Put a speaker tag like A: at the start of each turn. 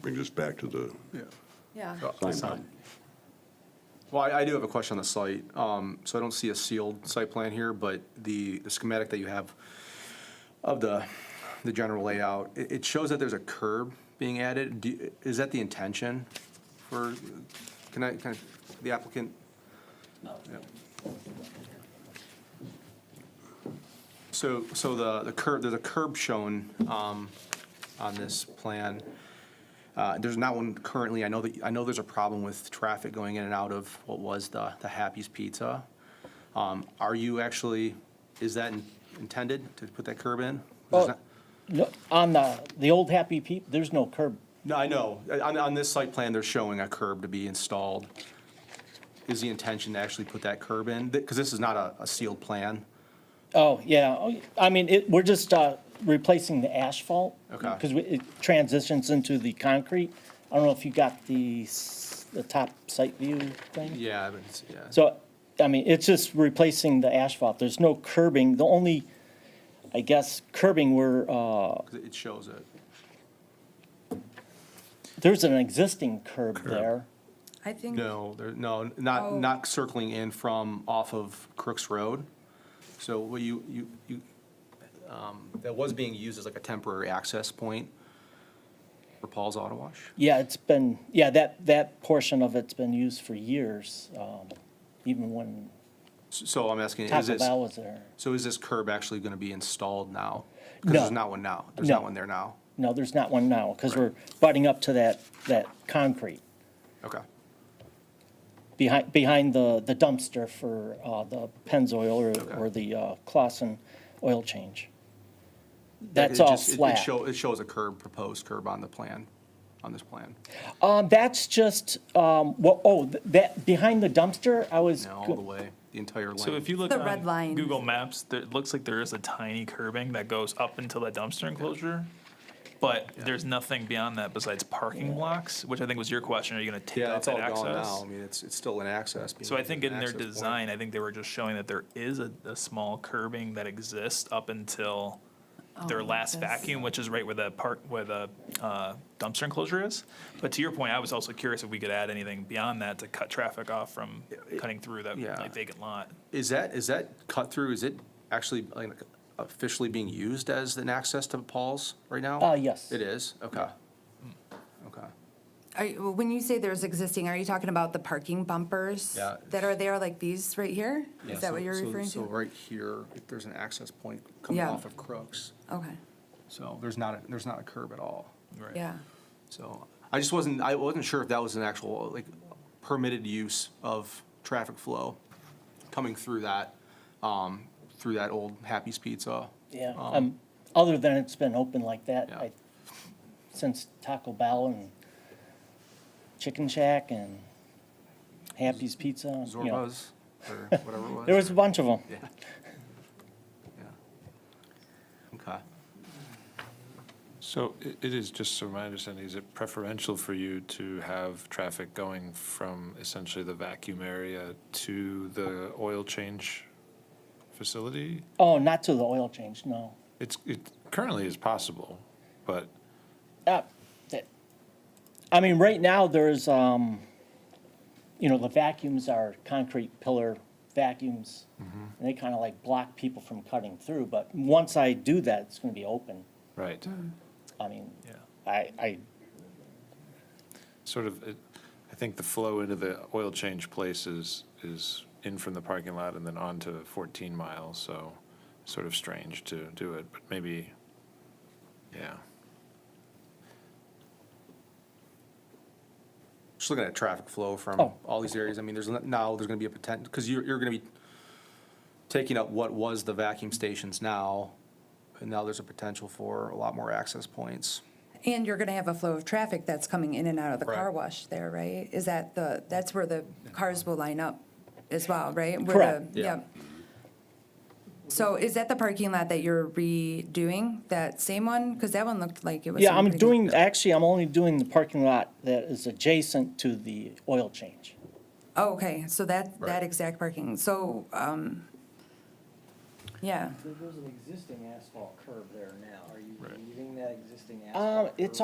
A: bring this back to the
B: Yeah.
A: sign.
C: Well, I I do have a question on the site. Um, So I don't see a sealed site plan here, but the the schematic that you have of the, the general layout, it it shows that there's a curb being added. Do you- Is that the intention for, can I, can I- the applicant? Yeah. So, so the the curb, there's a curb shown um, on this plan. Uh, There's not one currently. I know that, I know there's a problem with traffic going in and out of what was the, the Happy's Pizza. Um, Are you actually, is that intended to put that curb in? There's
D: Oh.
C: not-
D: No, on the, the old Happy Peep, there's no curb.
C: No, I know. On, on this site plan, they're showing a curb to be installed. Is the intention to actually put that curb in? Because this is not a, a sealed plan.
D: Oh, yeah, oh, I mean, it, we're just, uh, replacing the asphalt.
C: Okay.
D: Because it transitions into the concrete. I don't know if you got the, s- the top site view thing?
C: Yeah, I mean, it's- yeah.
D: So, I mean, it's just replacing the asphalt. There's no curbing. The only, I guess, curbing where, uh,
C: 'Cause It shows it.
D: there's an existing curb there.
B: I think,
C: No, there, no, not,
B: Oh.
C: not circling in from off of Crooks Road. So what you, you, you, um, that was being used as like a temporary access point for Paul's Auto Wash.
D: Yeah, it's been, yeah, that, that portion of it's been used for years, um, even when
C: S- So I'm asking, is
D: Taco
C: this,
D: Bell was there.
C: so is this curb actually gonna be installed now? Because
D: No.
C: there's not one now. There's not
D: No.
C: one there now.
D: No, there's not one now, because we're butting up to that, that concrete
C: Okay,
D: behind, behind the, the dumpster for, uh, the Pennzoil or, or the, uh, Clausen oil change. That's
C: It
D: all
C: just- it- it
D: flat.
C: show- It shows a curb, proposed curb on the plan, on this plan.
D: Um, that's just, um, what, oh, th- that, behind the dumpster, I was.
C: Now, all the way, the entire length.
E: So if you look
B: The red
E: on
B: lines.
E: Google Maps, there, it looks like there is a tiny curbing that goes up until that dumpster enclosure. But there's nothing beyond that besides parking blocks, which I think was your question. Are you going to take
C: Yeah,
E: out
C: it's
E: that
C: all gone now.
E: access?
C: I mean, it's, it's still an access. being
E: So I
C: used
E: think
C: as an
E: in their
C: access point.
E: design, I think they were just showing that there is a, a small curbing that exists up until their
B: Oh,
E: last
B: this.
E: vacuum, which is right where the park, where the uh, dumpster enclosure is. But to your point, I was also curious if we could add anything beyond that to cut traffic off from cutting through that
C: Yeah.
E: like, vacant lot.
C: Is that, is that cut through, is it actually like officially being used as an access to Paul's right now?
D: Uh, yes.
C: It is, okay. Okay.
B: Are you- when you say there's existing, are you talking about the parking bumpers?
C: Yeah.
B: That are there, like these right here?
C: Yeah,
B: Is that
C: so-
B: what you're
C: so-
B: referring
C: So
B: to?
C: right here, if there's an access point coming
B: Yeah.
C: off of Crooks,
B: Okay,
C: so there's not, a- there's not a curb at all.
E: Right.
B: yeah.
C: So I just wasn't, I wasn't sure if that was an actual, like, permitted use of traffic flow coming through that, um, through that old Happy's Pizza.
D: Yeah,
C: Um,
D: um, other than it's been open like that,
C: Yeah.
D: I, since Taco Bell and Chicken Shack and Happy's Pizza, you know.
C: Zorba's, or whatever it was.
D: There was a bunch of them.
C: Yeah. Yeah. Okay.
F: So i- it is, just so my understanding, is it preferential for you to have traffic going from essentially the vacuum area to the oil change facility?
D: Oh, not to the oil change, no.
F: It's, it currently is possible, but
D: Uh, that- I mean, right now, there's, um, you know, the vacuums are concrete pillar vacuums. And they kind of like block people from cutting through, but once I do that, it's going to be open.
F: Right.
D: I mean,
E: Yeah.
D: I, I
F: Sort of, it- I think the flow into the oil change places is in from the parking lot and then on to 14 miles, so sort of strange to do it, but maybe, yeah.
C: Just looking at traffic flow from
D: Oh.
C: all these areas, I mean, there's, n- now there's gonna be a potential, because you're, you're gonna be taking up what was the vacuum stations now, and now there's a potential for a lot more access points.
B: And you're gonna have a flow of traffic that's coming in and out of the car
C: Right.
B: wash there, right? Is that the, that's where the cars will line up as well, right? Where the-
D: Correct.
C: Yeah.
B: Yep. So is that the parking lot that you're redoing, that same one? Because that one looked like it was.
D: Yeah,
B: in
D: I'm
B: pretty good-
D: doing, actually, I'm only doing the parking lot that is adjacent to the oil change.
B: Oh, okay, so that, that
C: Right.
B: exact parking, so, um, yeah.
G: There's an existing asphalt curb there now. Are you leaving that existing asphalt?
D: Um, it's
G: curb?